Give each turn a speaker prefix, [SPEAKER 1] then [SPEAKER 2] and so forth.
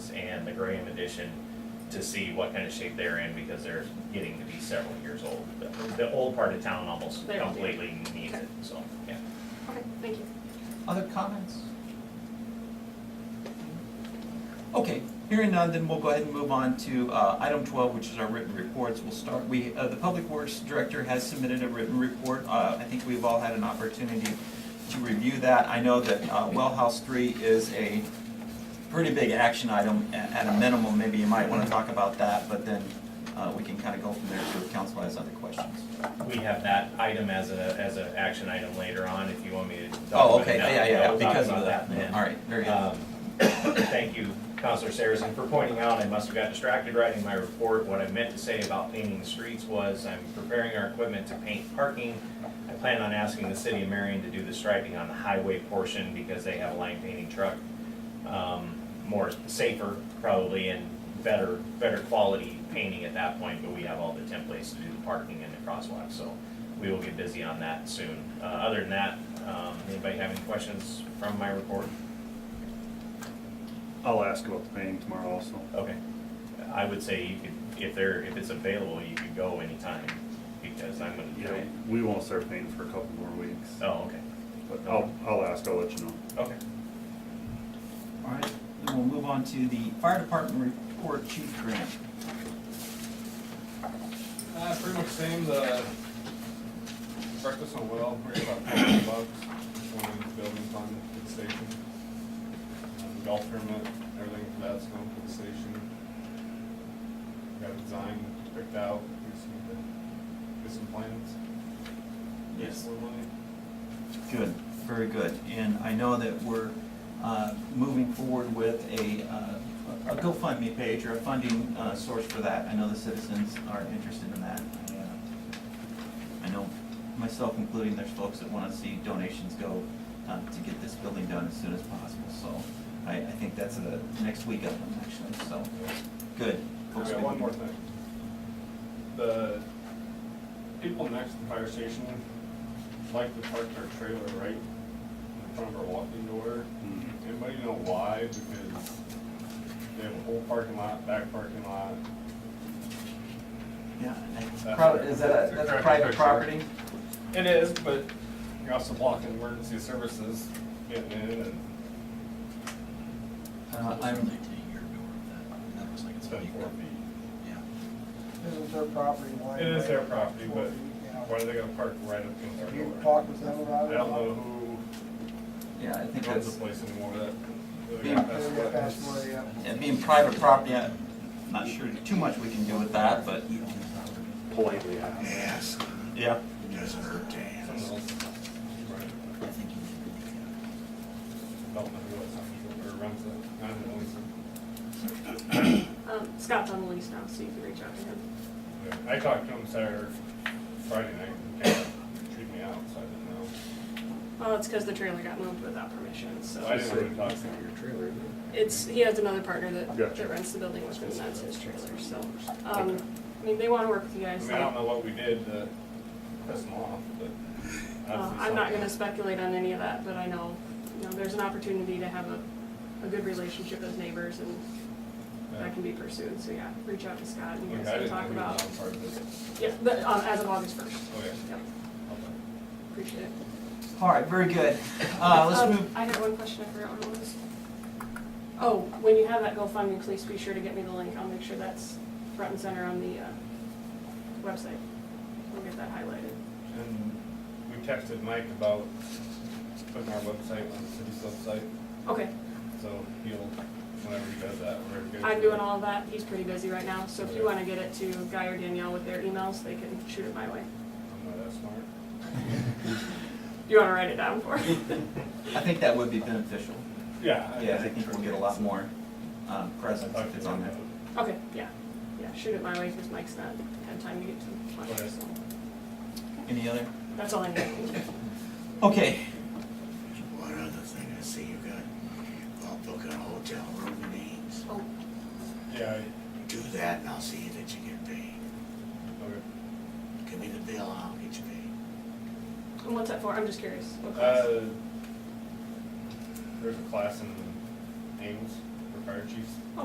[SPEAKER 1] the Graham edition to see what kind of shape they're in, because they're getting to be several years old. The, the old part of town almost
[SPEAKER 2] They're old, yeah.
[SPEAKER 1] completely needs it, so, yeah.
[SPEAKER 2] Okay, thank you.
[SPEAKER 3] Other comments? Okay, hearing none, then we'll go ahead and move on to uh, item 12, which is our written reports. We'll start, we, uh, the Public Works Director has submitted a written report. Uh, I think we've all had an opportunity to review that. I know that uh, Well House 3 is a pretty big action item a- at a minimum. Maybe you might want to talk about that, but then uh, we can kind of go from there if the council has other questions.
[SPEAKER 1] We have that item as a, as an action item later on, if you want me to. talk
[SPEAKER 3] Oh,
[SPEAKER 1] about
[SPEAKER 3] okay,
[SPEAKER 1] it now.
[SPEAKER 3] yeah, yeah, yeah,
[SPEAKER 1] We'll talk
[SPEAKER 3] because of
[SPEAKER 1] about
[SPEAKER 3] that.
[SPEAKER 1] then.
[SPEAKER 3] All right, very good.
[SPEAKER 1] Um, Thank you, Counselor Saracen, for pointing out, I must have got distracted writing my report. What I meant to say about painting the streets was, I'm preparing our equipment to paint parking. I plan on asking the city of Marion to do the striping on the highway portion because they have a line painting truck. Um, More safer probably and better, better quality painting at that point, but we have all the templates to do the parking and the crosswalk, so we will get busy on that soon. Uh, Other than that, um, anybody have any questions from my report?
[SPEAKER 4] I'll ask about the painting tomorrow also.
[SPEAKER 1] Okay. I would say you could, if there, if it's available, you could go anytime, because I'm gonna
[SPEAKER 4] You
[SPEAKER 1] do
[SPEAKER 4] know,
[SPEAKER 1] it.
[SPEAKER 4] we won't start painting for a couple more weeks,
[SPEAKER 1] Oh, okay,
[SPEAKER 4] but I'll, I'll ask, I'll let you know.
[SPEAKER 1] okay.
[SPEAKER 3] All right, then we'll move on to the fire department report, Chief Grant.
[SPEAKER 5] Uh, pretty much same, the breakfast on Will, we're about four hundred bucks, going into building fund for the station. Um, Golf tournament, everything for that's going for the station. Got a design picked out, we just need to get some plans.
[SPEAKER 3] Yes.
[SPEAKER 5] More money.
[SPEAKER 3] Good, very good. And I know that we're uh, moving forward with a, uh, a GoFundMe page or a funding uh, source for that. I know the citizens are interested in that. I, uh, I know myself including, there's folks that want to see donations go uh, to get this building done as soon as possible. So I, I think that's the next week of them actually, so, good.
[SPEAKER 5] I got one more thing. The people next to the fire station like to park their trailer right in front of our walking door.
[SPEAKER 4] Mhm.
[SPEAKER 5] Anybody know why? Because they have a whole parking lot, back parking lot.
[SPEAKER 3] Yeah,
[SPEAKER 5] That's
[SPEAKER 3] Pro-
[SPEAKER 5] right.
[SPEAKER 3] is that a,
[SPEAKER 5] That's
[SPEAKER 3] that's a
[SPEAKER 5] correct.
[SPEAKER 3] private
[SPEAKER 5] Correct.
[SPEAKER 3] property?
[SPEAKER 5] It is, but you're also blocking emergency services getting in and
[SPEAKER 3] Uh, I'm,
[SPEAKER 5] it's
[SPEAKER 3] Oh,
[SPEAKER 5] been four feet.
[SPEAKER 6] Isn't their property line?
[SPEAKER 5] It is their
[SPEAKER 6] right?
[SPEAKER 5] property, but
[SPEAKER 6] Yeah.
[SPEAKER 5] why are they gonna park right up against
[SPEAKER 6] Have You
[SPEAKER 5] our door?
[SPEAKER 6] talked with them about
[SPEAKER 5] I
[SPEAKER 6] it?
[SPEAKER 5] don't know who
[SPEAKER 3] yeah, I think
[SPEAKER 5] owns
[SPEAKER 3] that's,
[SPEAKER 5] the place anymore that.
[SPEAKER 3] Being-
[SPEAKER 6] They're gonna pass away, yeah.
[SPEAKER 3] and being private property, I'm not sure too much we can do with that, but.
[SPEAKER 4] Politely ask.
[SPEAKER 7] Ask,
[SPEAKER 3] Yeah.
[SPEAKER 7] it doesn't hurt to
[SPEAKER 5] Someone
[SPEAKER 7] ask.
[SPEAKER 5] else. Don't know who it's, on, or runs it, I don't know, it's-
[SPEAKER 2] Um, Scott's on the lease now, so you can reach out to him.
[SPEAKER 5] I talked to him Saturday, Friday night, and kind of treated me out, so I didn't know.
[SPEAKER 2] Well, it's because the trailer got moved without permission,
[SPEAKER 5] So I
[SPEAKER 2] so.
[SPEAKER 5] didn't really talk to him.
[SPEAKER 2] It's, he has another partner that,
[SPEAKER 4] Gotcha.
[SPEAKER 2] that rents the building, which means that's his trailer, so. Um, I mean, they want to work with you
[SPEAKER 5] I
[SPEAKER 2] guys.
[SPEAKER 5] mean, I don't know what we did to piss him off, but.
[SPEAKER 2] Uh,
[SPEAKER 5] obviously
[SPEAKER 2] I'm not
[SPEAKER 5] something-
[SPEAKER 2] gonna speculate on any of that, but I know, you know, there's an opportunity to have a, a good relationship as neighbors and that can be pursued, so yeah, reach out to Scott and you
[SPEAKER 5] Like,
[SPEAKER 2] guys
[SPEAKER 5] I
[SPEAKER 2] can
[SPEAKER 5] didn't
[SPEAKER 2] talk
[SPEAKER 5] think we were
[SPEAKER 2] about.
[SPEAKER 5] on part of this. Oh,
[SPEAKER 2] Yeah, but, um, as of August first,
[SPEAKER 5] Okay.
[SPEAKER 2] yeah,
[SPEAKER 5] Okay.
[SPEAKER 2] appreciate it.
[SPEAKER 3] All right, very good. Uh, let's
[SPEAKER 2] Um,
[SPEAKER 3] move,
[SPEAKER 2] I had one question, I forgot what it was. Oh, when you have that GoFundMe, please be sure to get me the link, I'll make sure that's front and center on the, uh, website. We'll get that highlighted.
[SPEAKER 5] And we texted Mike about putting our website on the city's website,
[SPEAKER 2] Okay,
[SPEAKER 5] so he'll, whenever he does that, whenever he goes.
[SPEAKER 2] I'm doing all of that, he's pretty busy right now, so if you wanna get it to Guy or Danielle with their emails, they can shoot it my way.
[SPEAKER 5] I'm not that smart.
[SPEAKER 2] Do you wanna write it down for me?
[SPEAKER 3] I think that would be beneficial.
[SPEAKER 5] Yeah.
[SPEAKER 3] Yeah, I think we'll get a lot more uh,
[SPEAKER 5] I
[SPEAKER 3] presence
[SPEAKER 5] talked
[SPEAKER 3] if
[SPEAKER 5] to
[SPEAKER 3] it's on
[SPEAKER 5] him
[SPEAKER 3] there.
[SPEAKER 5] about it.
[SPEAKER 2] Okay, yeah, yeah, shoot it my way, cause Mike's not had time to get to my,
[SPEAKER 5] Okay.
[SPEAKER 2] so,
[SPEAKER 3] Any other?
[SPEAKER 2] that's all I need.
[SPEAKER 3] Okay,
[SPEAKER 7] One other thing I see you got, I'll book a hotel room names.
[SPEAKER 2] Oh,
[SPEAKER 5] Yeah,
[SPEAKER 7] Do that and I'll see that you get paid.
[SPEAKER 5] I- okay.
[SPEAKER 7] Give me the bill, I'll get you paid.
[SPEAKER 2] and what's that for, I'm just curious, what class?
[SPEAKER 5] Uh, there's a class in Ames for fire chiefs.